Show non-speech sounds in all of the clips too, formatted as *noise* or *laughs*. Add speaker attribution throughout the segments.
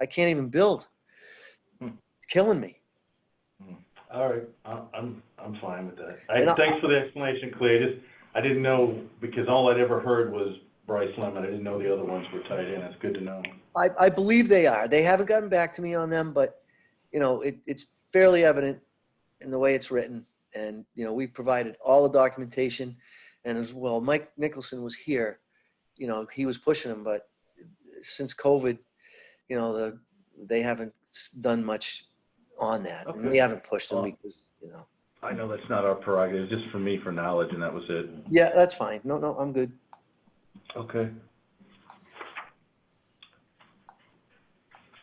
Speaker 1: I can't even build.
Speaker 2: Hmm.
Speaker 1: It's Killing me.
Speaker 2: All right, I'm, I'm, I'm fine with that.
Speaker 1: And I-
Speaker 2: I, thanks for the explanation, Clay, I just, I didn't know, because all I'd ever heard was Bryce Lemon, I didn't know the other ones were tied in, it's good to know.
Speaker 1: I, I believe they are. They haven't gotten back to me on them, but, you know, it, it's fairly evident in the way it's written. And, you know, we provided all the documentation and as well, Mike Nicholson was here. You know, he was pushing them, but since COVID, you know, the, they haven't s- done much on that. And we
Speaker 2: Okay.
Speaker 1: haven't pushed them
Speaker 2: Well-
Speaker 1: because, you know,
Speaker 2: I know that's not our prerogative, it's just for me, for knowledge, and that was it.
Speaker 1: yeah, that's fine. No, no, I'm good.
Speaker 2: Okay.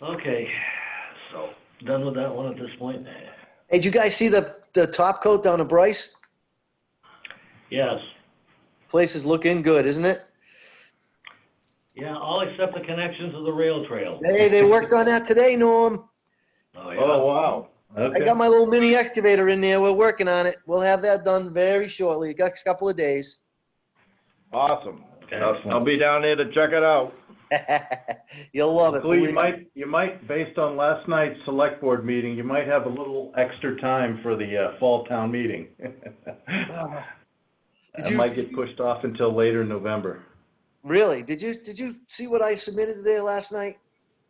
Speaker 3: Okay, so done with that one at this point.
Speaker 1: Hey, did you guys see the, the top coat down at Bryce?
Speaker 3: Yes,
Speaker 1: Place is looking good, isn't it?
Speaker 3: yeah, all except the connections of the rail trail.
Speaker 1: Hey, they worked on that today, Norm.
Speaker 3: Oh,
Speaker 2: Oh,
Speaker 3: yeah.
Speaker 2: wow.
Speaker 1: I
Speaker 2: Okay,
Speaker 1: got my little mini excavator in there. We're working on it. We'll have that done very shortly. Got a couple of days. *laughs*
Speaker 4: Awesome. I'll, I'll
Speaker 2: excellent.
Speaker 4: be down there to check it out.
Speaker 1: You'll love it.
Speaker 2: Clay,
Speaker 1: believe
Speaker 2: you
Speaker 1: me.
Speaker 2: might, you might, based on last night's select board meeting, you might have a little extra time for the, uh, fall town meeting. *laughs*
Speaker 1: Ah. *sighs* Did
Speaker 2: It
Speaker 1: you-
Speaker 2: might get pushed off until later in November.
Speaker 1: Really? Did you did you see what I submitted today last night?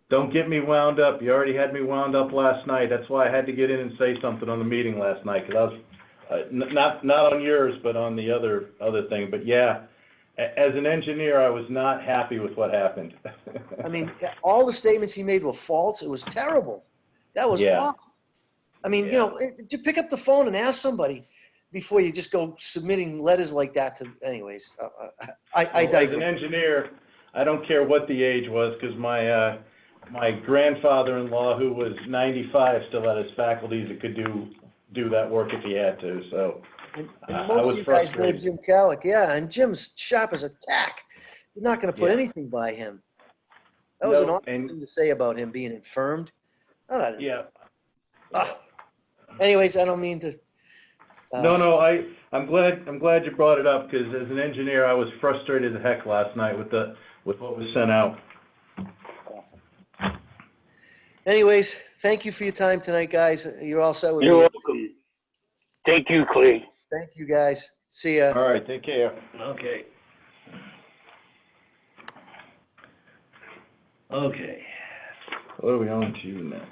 Speaker 2: Don't get me wound up. You already had me wound up last night. That's why I had to get in and say something on the meeting last night, because I was, uh, n- not, not on yours, but on the other, other thing. But yeah, a- as an engineer, I was not happy with what *laughs* happened.
Speaker 1: I mean, all the statements he made were false. It was terrible. That was
Speaker 2: Yeah.
Speaker 1: awful. I mean, you
Speaker 2: Yeah.
Speaker 1: know, it- to pick up the phone and ask somebody before you just go submitting letters like that to. Anyways, uh, uh, I I
Speaker 2: Well, As an
Speaker 1: digress.
Speaker 2: engineer, I don't care what the age was, because my, uh, my grandfather-in-law, who was ninety-five, still had his faculties that could do, do that work if he had to, so.
Speaker 1: And,
Speaker 2: I- uh, I
Speaker 1: and most
Speaker 2: was
Speaker 1: of you guys know
Speaker 2: frustrated.
Speaker 1: Jim Calic, yeah, and Jim's sharp as a tack. You're not going to put
Speaker 2: Yeah.
Speaker 1: anything by him. That was an
Speaker 2: No,
Speaker 1: awful
Speaker 2: and-
Speaker 1: thing to say about him being infirmed. Not out of-
Speaker 2: Yeah,
Speaker 1: ah. Anyways, I don't mean to. uh,
Speaker 2: No, no, I, I'm glad, I'm glad you brought it up, because as an engineer, I was frustrated as heck last night with the, with what was sent out.
Speaker 1: Anyways, thank you for your time tonight, guys. You're all set with
Speaker 5: You're
Speaker 1: me.
Speaker 5: welcome. Thank you, Clay.
Speaker 1: Thank you, guys. See ya.
Speaker 2: All right, take care.
Speaker 3: Okay. Okay,
Speaker 2: What are we on to next?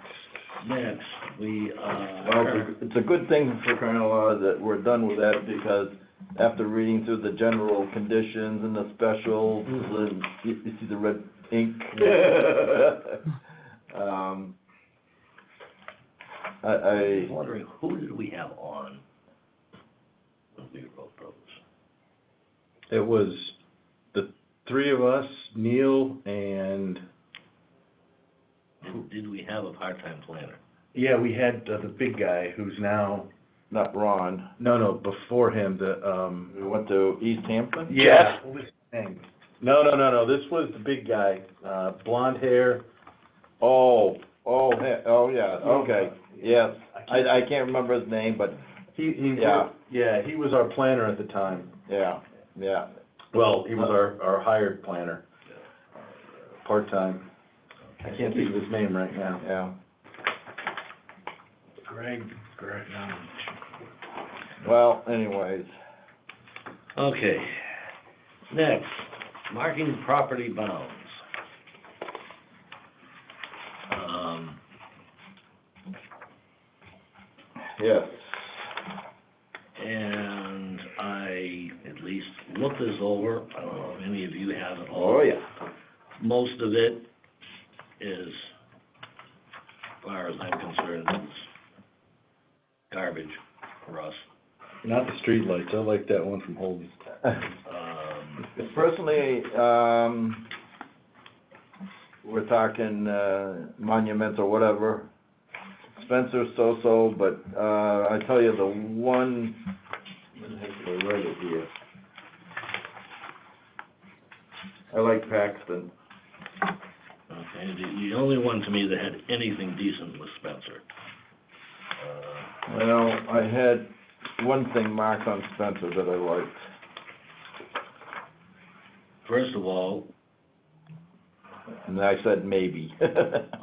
Speaker 3: next, we,
Speaker 4: Well,
Speaker 3: uh,
Speaker 4: it's a- it's a good thing for crying out loud that we're done with that because after reading through the general conditions and the specials
Speaker 2: Mm-hmm.
Speaker 4: and you, you see the red ink.
Speaker 2: *laughs*
Speaker 4: *laughs* Um, I, I.
Speaker 3: I'm wondering, who did we have on? when We wrote those.
Speaker 2: It was the three of us, Neil and,
Speaker 3: Did- Did we have a part-time planner?
Speaker 2: yeah, we had uh, the big guy who's now,
Speaker 4: not Ron.
Speaker 2: no, no, before him, the, um,
Speaker 4: We went to East Hampton.
Speaker 2: yeah. what was his name? No, no, no, no, this was the big guy, uh, blonde hair.
Speaker 4: Oh, oh, he- oh, yeah, okay, yes. I, I can't remember his name, but,
Speaker 2: He, he,
Speaker 4: Yeah.
Speaker 2: yeah, he was our planner at the time.
Speaker 4: yeah, yeah.
Speaker 2: Well, he was our, our hired planner, part-time. I can't think of his name right now.
Speaker 4: Yeah,
Speaker 2: Greg, Greg, um, no.
Speaker 4: well, anyways,
Speaker 3: Okay, next, marking property bounds. Um,
Speaker 4: yes.
Speaker 3: and I at least looked this over, I don't know if any of you have it all.
Speaker 4: Oh, yeah.
Speaker 3: Most of it is, as far as I'm concerned, is garbage for us.
Speaker 2: Not the streetlights, I like that one from
Speaker 4: *laughs*
Speaker 2: Holden.
Speaker 3: Um,
Speaker 4: Personally, um, we're talking, uh, monuments or whatever. Spencer's so-so, but, uh, I tell you, the one, what the heck did I write it here? I like Paxton.
Speaker 3: okay, the, the only one to me that had anything decent was Spencer. Uh,
Speaker 4: Well, I had one thing marked on Spencer that I liked.
Speaker 3: First of all,
Speaker 4: And I said maybe. *laughs*